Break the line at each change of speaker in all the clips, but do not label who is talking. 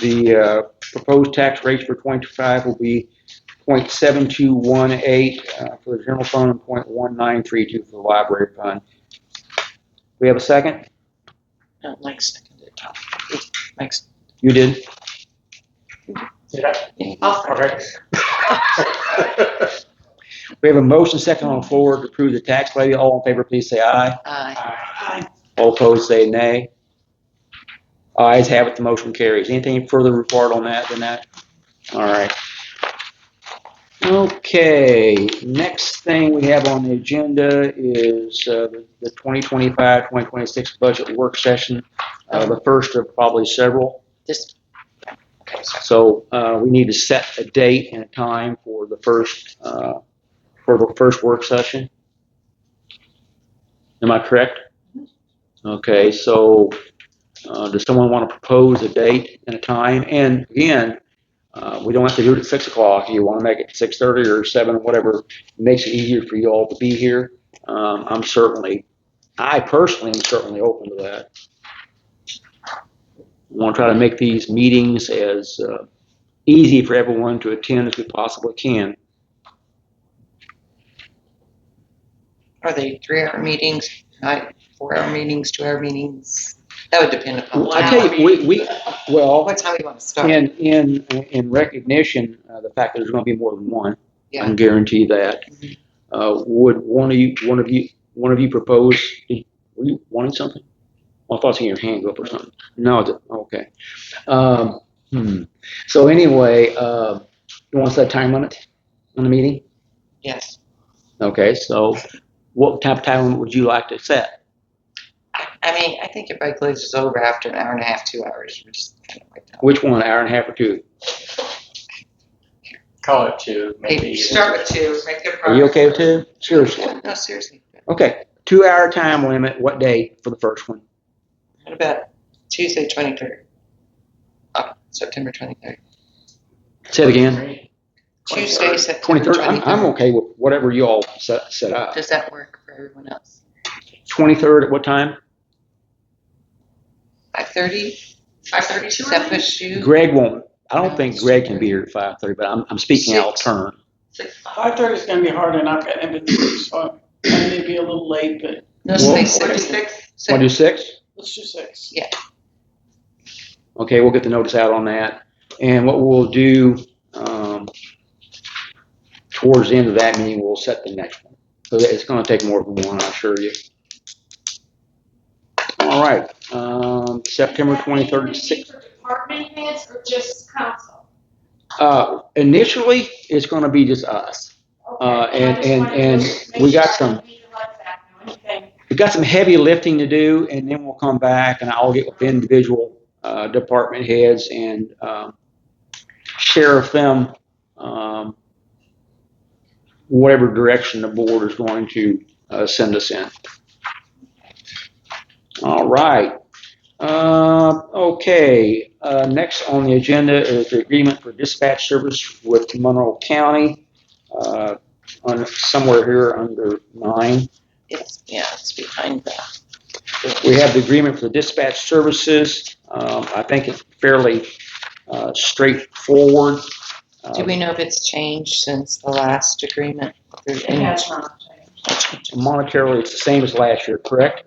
The uh, proposed tax rates for 25 will be .7218 uh, for the general fund and .1932 for the library fund. We have a second?
No, Mike seconded it. Mike's.
You did?
Oh,
Okay.
We have a motion second on the floor to approve the tax levy. All in favor, please say aye.
Aye.
All opposed, say nay. Ayes have it, the motion carries. Anything further report on that than that? All right. Okay, next thing we have on the agenda is uh, the 2025-2026 budget work session, uh, the first of probably several.
This. Okay, sorry.
So uh, we need to set a date and a time for the first, uh, for the first work session. Am I correct? Okay, so uh, does someone want to propose a date and a time? And again, uh, we don't have to do it at 6 o'clock. You want to make it 6:30 or 7, whatever makes it easier for you all to be here. Um, I'm certainly, I personally am certainly open to that. We want to try to make these meetings as uh, easy for everyone to attend as we possibly can.
Are they three-hour meetings, night, four-hour meetings, two-hour meetings? That would depend upon.
Well, I tell you, we, we well,
What time you want to start?
in in in recognition uh, the fact that there's going to be more than one, I
Yeah.
can guarantee that.
Mhm.
Uh, would one of you, one of you, one of you propose? Were you wanting something? Well, I thought I seen your hand go up or something. No, it- okay. Um, hmm. So anyway, uh, you want to set a time limit on the meeting?
Yes.
Okay, so what type of time would you like to set?
I I mean, I think if I glazes over after an hour and a half, two hours, we're just kind of like, "Oh,
Which one, hour and a half or two?
Call it two,
maybe
maybe.
start with two, make good
Are you okay with two? Seriously?
No, seriously.
Okay, two hour time limit, what day for the first one?
What about Tuesday, twenty-third? Uh, September twenty-third.
Say it again.
Tuesday,
23rd.
September
Twenty-third, I'm, I'm
twenty-third.
okay with whatever you all set, set up.
Does that work for everyone else?
Twenty-third at what time?
Five thirty? Five thirty, does that push you?
Greg won't, I don't think Greg can be here at five thirty, but I'm, I'm speaking out of
Six.
turn.
Six-
Five thirty is gonna be hard enough, and it's, so I may be a little late, but
No,
Well-
say six.
Want to do
Six.
six?
let's do six.
Okay, we'll get the notice out on that. And what we'll do, um, towards the end of that meeting, we'll set the next one. So that- it's gonna take more than one, I assure you. All right, um, September twenty-third, six,
For department heads or just council?
uh, initially, it's gonna be just us.
Okay,
Uh, and-
I just
and-
wanted to
and
make
we got
sure I
some-
don't leave the lights out or anything.
We've got some heavy lifting to do, and then we'll come back and I'll get with individual uh, department heads and um, share with them um, whatever direction the board is going to uh, send us in. All right. Uh, okay. Uh, next on the agenda is the agreement for dispatch service with Monroe County. Uh, on somewhere here under nine.
It's, yeah, it's behind that.
We have the agreement for the dispatch services. Um, I think it's fairly uh, straightforward. Uh,
Do we know if it's changed since the last agreement? If there's
It
any
has not
change?
changed.
Monetarily, it's the same as last year, correct?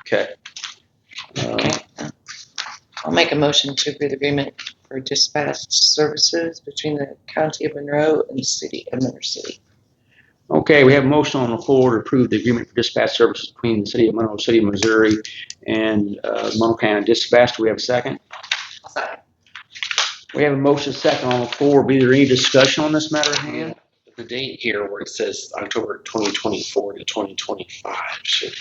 Okay. Uh,
Okay. I'll make a motion to approve the agreement for dispatch services between the county of Monroe and the city of Monroe City.
Okay, we have a motion on the floor to approve the agreement for dispatch services between the city of Monroe City, Missouri and uh, Monroe County Dispatch. Do we have a second? We have a motion second on the floor. Be there any discussion on this matter at hand?
The date here where it says October 2024 to 2025 should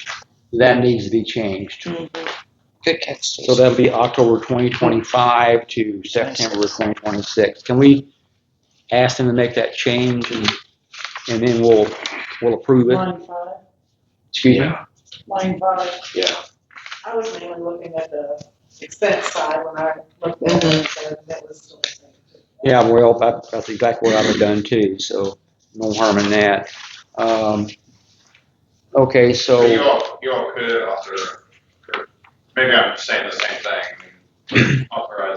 That needs to be changed.
Good catch,
So
Stacy.
that'll be October 2025 to September 2026. Can we ask them to make that change and, and then we'll, we'll approve it?
Line five,
Excuse me?
line five.
Yeah.
I was mainly looking at the expense side when I looked at
Mm-hmm.
it, so that was still the same.
Yeah, well, that- that's exactly what I've have done too, so no harm in that. Um, Okay,
So you
so,
all, you all could author, could- maybe I'm saying the same thing, authorize